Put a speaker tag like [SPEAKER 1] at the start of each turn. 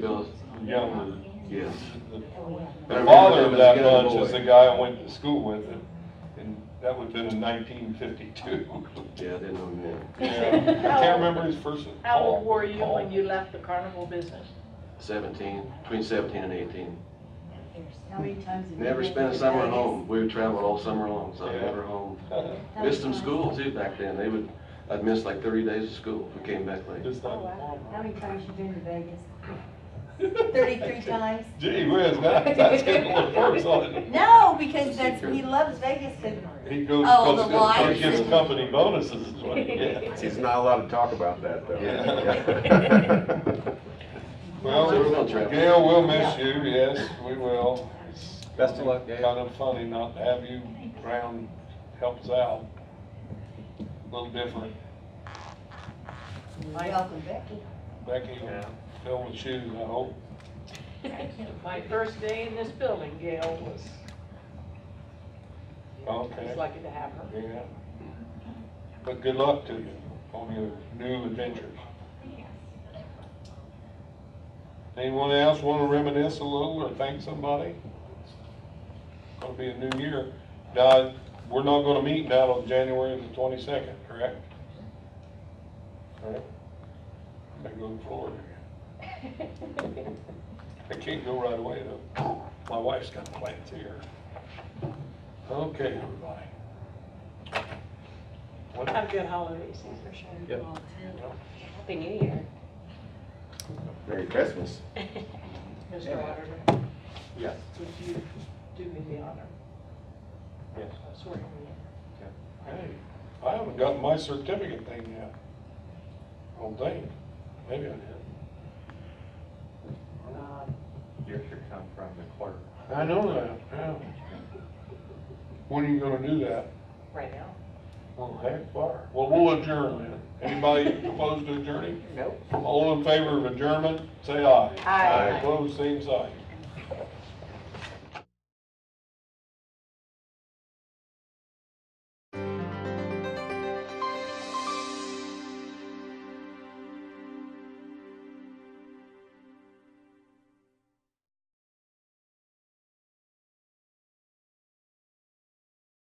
[SPEAKER 1] Bill,
[SPEAKER 2] Young,
[SPEAKER 1] yes.
[SPEAKER 2] the father of that bunch is the guy I went to school with, and- and that would've been in nineteen fifty-two.
[SPEAKER 1] Yeah, I didn't know
[SPEAKER 2] I can't remember his first. name.
[SPEAKER 3] How
[SPEAKER 2] Paul-
[SPEAKER 3] old were you
[SPEAKER 2] Paul.
[SPEAKER 3] when you left the carnival business?
[SPEAKER 1] that. Seventeen, between seventeen and eighteen.
[SPEAKER 4] How many times have you?
[SPEAKER 1] Never
[SPEAKER 4] been
[SPEAKER 1] spent a
[SPEAKER 4] to
[SPEAKER 1] summer
[SPEAKER 4] Vegas?
[SPEAKER 1] home. We traveled all summer long, so I
[SPEAKER 2] Yeah.
[SPEAKER 1] never home.
[SPEAKER 4] How many
[SPEAKER 1] Missed some
[SPEAKER 4] times-
[SPEAKER 1] school too back then. They would, I'd miss like thirty days of school if we came back late.
[SPEAKER 2] Just
[SPEAKER 4] Oh,
[SPEAKER 2] like-
[SPEAKER 4] wow. How many times you been to Vegas? Thirty-three times?
[SPEAKER 2] Gee whiz, that, that's getting a little worse on it.
[SPEAKER 4] No, because that's, he loves Vegas, but
[SPEAKER 2] He goes,
[SPEAKER 4] Oh, the
[SPEAKER 2] goes- he
[SPEAKER 4] wives
[SPEAKER 2] gives
[SPEAKER 4] and-
[SPEAKER 2] company bonuses is what he gets.
[SPEAKER 5] It's not allowed to talk about that, though.
[SPEAKER 2] Yeah. Well,
[SPEAKER 1] So we're gonna travel.
[SPEAKER 2] Gail, we'll miss you, yes, we will. It's
[SPEAKER 5] Best of luck, Gail.
[SPEAKER 2] Kind of funny not to have you around, helps out. A Little different.
[SPEAKER 4] welcome Becky.
[SPEAKER 2] Becky will fill the shoes, I hope.
[SPEAKER 3] My first day in this building, Gail was, I was
[SPEAKER 2] Okay,
[SPEAKER 3] lucky to have her.
[SPEAKER 2] yeah. But good luck to you on your new adventures. Anyone else want to reminisce a little or thank somebody? Gonna be a new year. Now, we're not gonna meet now on January the twenty-second, correct? Alright. I go to Florida. I can't go right away though. My wife's got plans here. Okay, everybody. What-
[SPEAKER 3] Have a good holiday season.
[SPEAKER 5] Yep.
[SPEAKER 3] Happy New Year.
[SPEAKER 5] Merry Christmas.
[SPEAKER 3] Mr. Auditor,
[SPEAKER 5] Yes.
[SPEAKER 3] would you do me the honor
[SPEAKER 2] Yes.
[SPEAKER 3] of swearing me in?
[SPEAKER 2] Hey, I haven't gotten my certificate thing yet. Oh, dang, maybe I did.
[SPEAKER 3] Um,
[SPEAKER 5] Yours should come from the clerk.
[SPEAKER 2] I know that, yeah. When are you gonna do that?
[SPEAKER 3] Right now?
[SPEAKER 2] Well, heck, far. Well, we'll adjourn then. Anybody opposed to adjourning?
[SPEAKER 3] Nope.
[SPEAKER 2] All in favor of adjournment, say aye.
[SPEAKER 3] Aye.
[SPEAKER 2] Opposed, same sign.